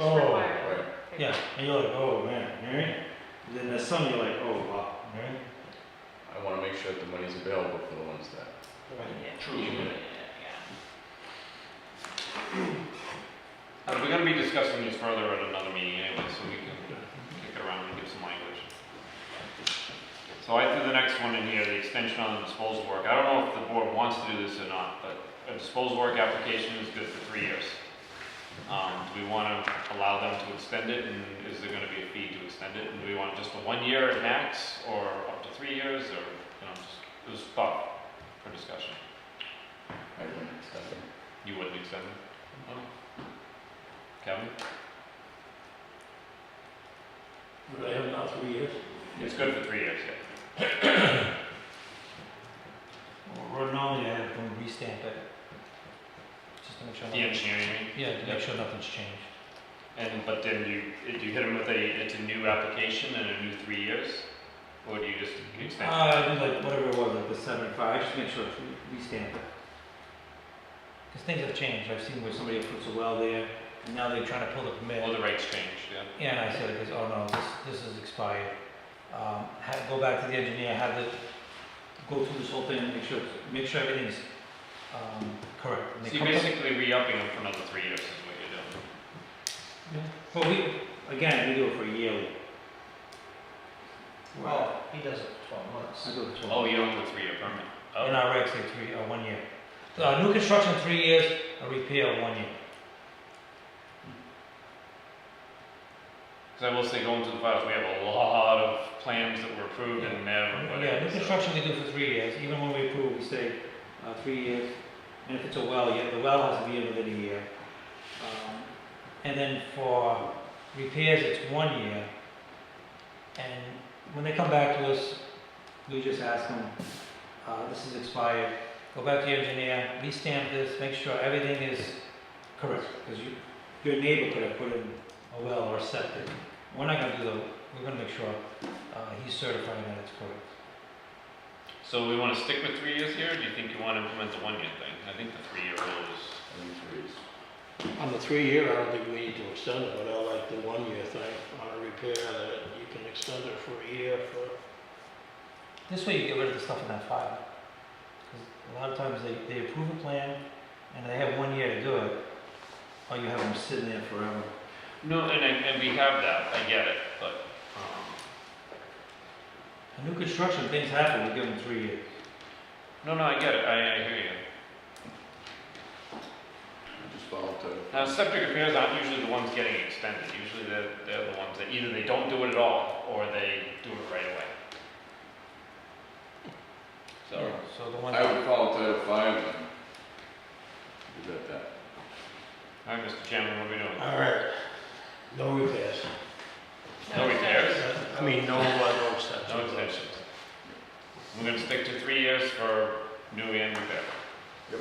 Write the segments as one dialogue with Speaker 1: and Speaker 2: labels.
Speaker 1: Oh, Yeah, and you're like, oh man, alright? And Then there's some you're like, oh wow, alright?
Speaker 2: I wanna make sure that the money's available for the ones that. True.
Speaker 3: Uh, we're gonna be discussing this further at another meeting anyway, so we can uh, kick it around and give some language. So I threw the next one in here, the extension on the disposal work. I don't know if the board wants to do this or not, but a disposal work application is good for three years. Um, do we wanna allow them to extend it, and is there gonna be a fee to extend it? And do we want just a one year at max, or up to three years, or, you know, just, it was thought for discussion.
Speaker 2: I wouldn't accept it.
Speaker 3: You wouldn't extend it? Okay. Kevin?
Speaker 4: But I have now three years.
Speaker 3: It's good for three years, yeah.
Speaker 1: Well, Rhode Island, I have them restamp it. Just to make sure.
Speaker 3: The
Speaker 1: nothing-
Speaker 3: engineering, you mean?
Speaker 1: Yeah, to make sure nothing's changed.
Speaker 3: and, but then you, if you hit them with a, it's a new application and a new three years? Or do you just extend? it?
Speaker 1: Uh, it was like whatever it was, like the seventy-five, just make sure it's re- restamped. Cause things have changed, I've seen where somebody puts a well there, and now they're trying to pull the permit.
Speaker 3: Or the rates change, yeah.
Speaker 1: Yeah, and I said, because, oh no, this, this is expired. Um, ha go back to the engineer, have the, go through this whole thing, and make sure, make sure everything's, um, correct. And they
Speaker 3: So you're
Speaker 1: come to-
Speaker 3: basically re-upping them for another three years is what you're doing.
Speaker 1: Well, we, again, we do it for a year.
Speaker 4: Well, he does it for twelve months.
Speaker 1: I do it for
Speaker 3: Oh, you don't do a three-year permit?
Speaker 1: In
Speaker 3: Oh,
Speaker 1: our regs, say three, uh, one year. Uh, new construction, three years, a repair, one year.
Speaker 3: because I will say going through the files, we have a lot of plans that were approved and never put
Speaker 1: Yeah, new
Speaker 3: in, so.
Speaker 1: construction we do for three years, even when we approve, we say, uh, three years, and if it's a well, yeah, the well has to be in within a year. Um, And then for repairs, it's one year. And when they come back to us, we just ask them, uh, this is expired, go back to your engineer, restamp this, make sure everything is correct, because you, your neighbor could have put in a well or a septic. We're not gonna do the, we're gonna make sure, uh, he's certifying that it's correct.
Speaker 3: So we want to stick with three years here, or do you think you want to implement the one-year thing? I think the three-year rule is.
Speaker 2: I think three is-
Speaker 4: On the three-year, I don't think we need to extend it, but I like the one-year thing on a repair that you can extend it for a year for,
Speaker 1: This way you get rid of the stuff in that file. 'Cause a lot of times they, they approve a plan and they have one year to do it, or you have them sitting there forever.
Speaker 3: No, and, I- and we have that, I get it, but, um,
Speaker 1: And new construction, things happen, we give them three years.
Speaker 3: no, no, I get it, I, I hear you.
Speaker 2: Just follow to.
Speaker 3: Now, septic repairs aren't usually the ones getting extended, usually they're, they're the ones that either they don't do it at all, or they do it right away. So,
Speaker 1: So the ones,
Speaker 2: I would follow Title Five then. Is that that?
Speaker 3: all right, Mr. Chairman, what are we doing?
Speaker 4: all right, no repairs.
Speaker 3: No repairs,
Speaker 4: I mean, no, uh, no extensions.
Speaker 3: no extensions. We're gonna stick to three years for new and repair.
Speaker 2: Yep.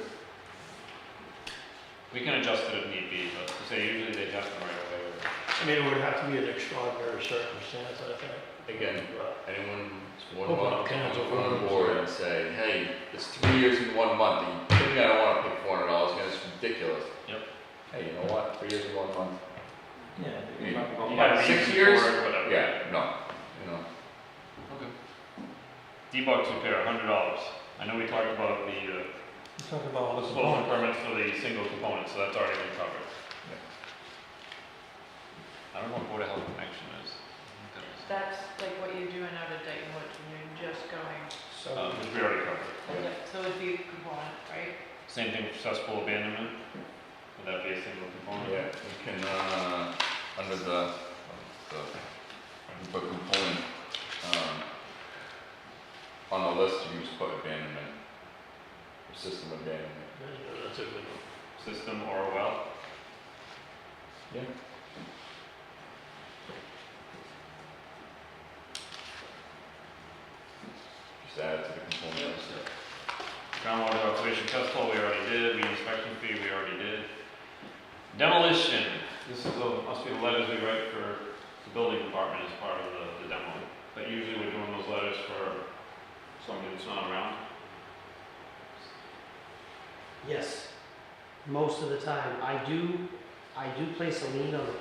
Speaker 3: We can adjust it if need be, but, say, usually they adjust them right away.
Speaker 4: I mean, it would have to be an extraordinary circumstance, I think.
Speaker 2: Again.
Speaker 4: But
Speaker 2: Anyone would
Speaker 4: Open
Speaker 2: want
Speaker 4: up
Speaker 2: to
Speaker 4: cans of
Speaker 2: come on
Speaker 4: worms.
Speaker 2: board and say, hey, it's three years and one month, and you think I don't wanna pay four hundred dollars, man, it's ridiculous.
Speaker 3: Yep.
Speaker 2: Hey, you know what, three years and one month,
Speaker 1: yeah.
Speaker 2: You-
Speaker 3: You got a
Speaker 2: Six
Speaker 3: reason
Speaker 2: years?
Speaker 3: for it, Whatever.
Speaker 2: yeah, no, you know,
Speaker 3: D-Box repair, hundred dollars. I know we talked about the, uh,
Speaker 1: Let's talk about all this.
Speaker 3: disposal permit for the single component, so that's already been covered.
Speaker 2: Yeah.
Speaker 3: I don't know what Board of Health connection is. I think
Speaker 2: Uh,
Speaker 3: that
Speaker 5: That's like what you're doing out of Dayton Woods, and you're just going,
Speaker 2: Um,
Speaker 3: was- Uh, which we already covered.
Speaker 2: Yeah.
Speaker 5: so it'd be a component, right?
Speaker 3: Same thing for cesspool abandonment, would that be a single component?
Speaker 2: yeah, you can, uh, under the, the, book component, um, on the list, you just put abandonment, or system abandonment.
Speaker 4: that's a good one.
Speaker 3: System or a well?
Speaker 2: Yeah. Just add it to the component list.
Speaker 3: Groundwater observation test hole, we already did, weed inspection fee, we already did. Demolition, this is, a- must be the letters we write for the building department as part of the, the demo. But usually we're doing those letters for somebody that's not around.
Speaker 6: Yes, most of the time. I do, I do place a lien on the